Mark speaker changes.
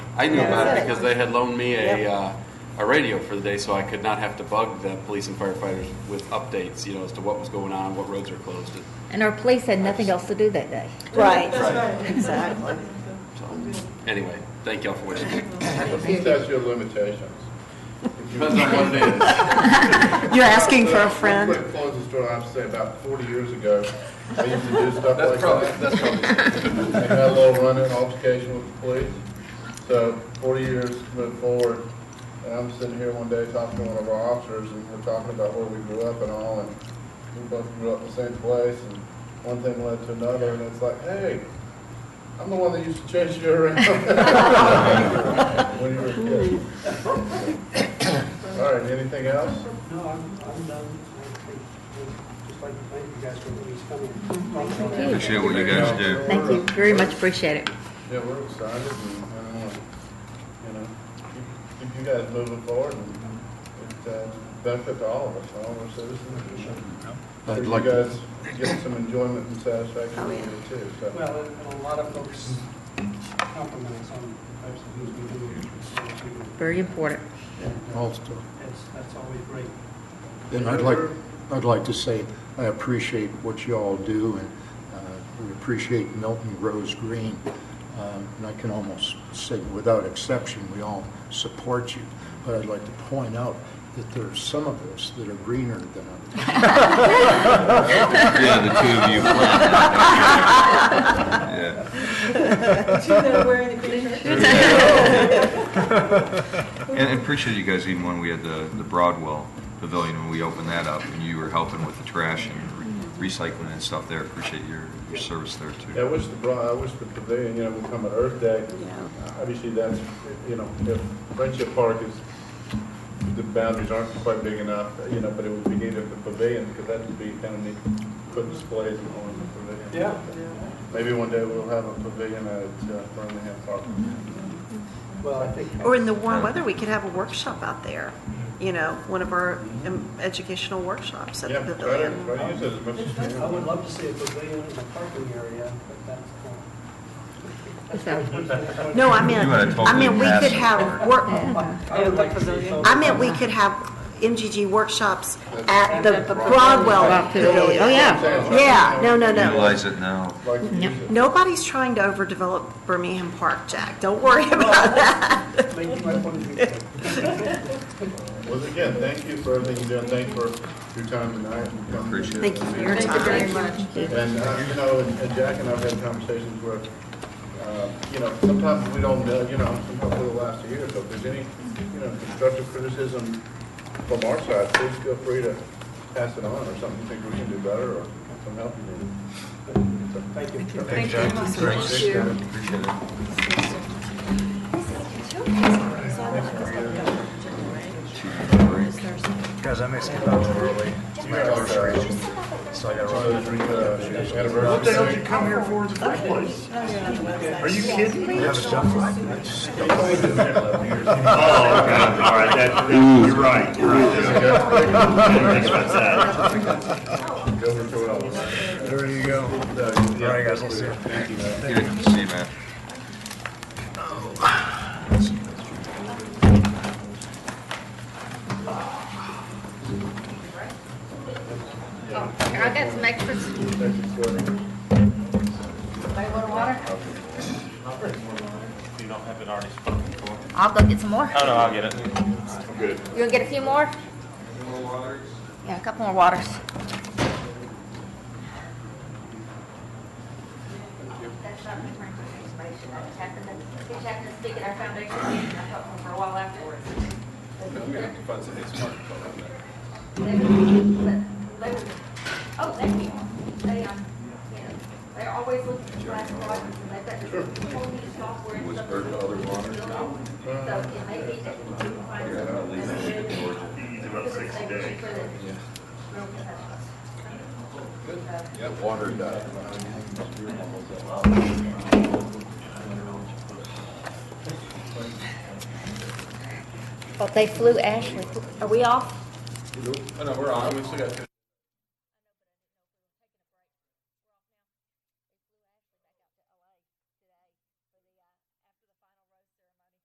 Speaker 1: I knew
Speaker 2: Yeah.
Speaker 1: about it because they had loaned me a, uh, a radio for the day so I could not have to bug the police and firefighters with updates, you know, as to what was going on, what roads were closed. and-
Speaker 3: And our police had nothing else to do that day.
Speaker 2: Right,
Speaker 1: Right.
Speaker 2: exactly.
Speaker 1: So, anyway, thank y'all for watching.
Speaker 4: I think that's your limitations. If you-
Speaker 1: Depends on what it is.
Speaker 2: You're asking for a friend?
Speaker 4: Real quick, Close the story, I have to say about forty years ago, I used to do stuff like
Speaker 1: That's probably,
Speaker 4: that.
Speaker 1: that's probably.
Speaker 4: I had a little run-in altercation with the police. So forty years moved forward, and I'm sitting here one day talking to one of our officers, and we're talking about where we grew up and all, and we both grew up in the same place, and one thing led to another, and it's like, hey, I'm the one that used to chase you around. When you were a kid. All right, anything else?
Speaker 5: No, I'm, I'm done. I think, we'd just like to thank you guys for always coming.
Speaker 6: Appreciate what you guys do.
Speaker 3: Thank you, very much appreciate it.
Speaker 4: Yeah, we're excited and, and, uh, you know, keep, keep you guys moving forward and it uh, benefit to all of us, all of our citizens.
Speaker 1: I'd
Speaker 4: Sure
Speaker 1: like
Speaker 4: You
Speaker 1: to-
Speaker 4: guys get some enjoyment and satisfaction out of it too, so.
Speaker 5: Well, and a lot of folks compliment us on the types of things we do. so it's really-
Speaker 3: Very important.
Speaker 7: also.
Speaker 5: That's, that's always great.
Speaker 7: And I'd like, I'd like to say, I appreciate what you all do, and uh, we appreciate Milton Rose Green. Um, And I can almost say, without exception, we all support you. But I'd like to point out that there are some of us that are greener than others.
Speaker 6: Yeah, the two of you. Yeah.
Speaker 8: Two that are wearing the green shirts.
Speaker 6: And and appreciate you guys even when we had the, the Broadwell Pavilion, when we opened that up and you were helping with the trash and re- recycling and stuff there. Appreciate your, your service there
Speaker 4: Yeah, I
Speaker 6: too.
Speaker 4: wish the, bra- I wish the pavilion, you know, would come at Earth Day. Obviously, that's, you know, if Friendship Park is, the boundaries aren't quite big enough, you know, but it would be neat if the pavilion, because that would be kind of neat, put displays and all in the pavilion. Maybe one day we'll have a pavilion at uh, Birmingham Park.
Speaker 5: Well, I think.
Speaker 2: Or in the warm weather, we could have a workshop out there, you know, one of our um, educational workshops at
Speaker 4: Yeah,
Speaker 2: the
Speaker 4: try to,
Speaker 2: pavilion.
Speaker 4: try to use it as much as you
Speaker 5: I would
Speaker 4: can.
Speaker 5: love to see a pavilion in the parking area, but that's.
Speaker 3: So,
Speaker 5: uh,
Speaker 2: No, I meant,
Speaker 6: You had a
Speaker 2: I meant we
Speaker 6: totally
Speaker 2: could
Speaker 6: massive
Speaker 2: have work,
Speaker 5: I would like to see some-
Speaker 2: I meant we could have MGG workshops at the Broadwell pavilion.
Speaker 3: Oh, yeah.
Speaker 2: Yeah, no, no, no.
Speaker 6: Utilize it now.
Speaker 4: Like to use it.
Speaker 2: Nobody's trying to overdevelop Birmingham Park, Jack. Don't worry about that.
Speaker 5: Make my point of view.
Speaker 4: Once again, thank you for everything you do, and thank you for your time tonight. and coming.
Speaker 6: Appreciate it.
Speaker 2: Thank you for your
Speaker 8: Thank you very
Speaker 2: time.
Speaker 8: much.
Speaker 4: And, uh, you know, and and Jack and I've had conversations where, uh, you know, sometimes we don't, know, you know, sometimes for the last year, so if there's any, you know, constructive criticism from our side, please feel free to pass it on, or something you think we can do better, or some help you need.
Speaker 5: Thank you.
Speaker 8: Thank you very much. Thank you.
Speaker 6: Appreciate it.
Speaker 9: Guys, I may skip out early. It's my anniversary, so I gotta run. What the hell did you come here for in the first place? Are you kidding? You have stuff like this? Oh, God, all right, that, that- you're right, you're right. Think about that. Oh, There you go. All right, guys, we'll see you.
Speaker 6: Good. See you, man.
Speaker 3: I got some extras.
Speaker 10: You don't have it already spoken for?
Speaker 3: I'll go get some more.
Speaker 10: Oh, no, I'll get it.
Speaker 3: You gonna get a few more? Yeah, a couple more waters.
Speaker 11: That's not the current information, I just happened to, it happened to speak at our foundation meeting, and I felt for a while afterwards.
Speaker 1: I'm gonna have to find something smart to call out there.
Speaker 11: They were- they were- Oh, thank you. They, um, you know, they're always looking for black products, and they've got this whole new software and stuff. So it may be that you can find something. It's about six days.
Speaker 4: Water diet.
Speaker 3: Well, they flew Ashley. Are we off?
Speaker 4: Oh, no, we're on, we still got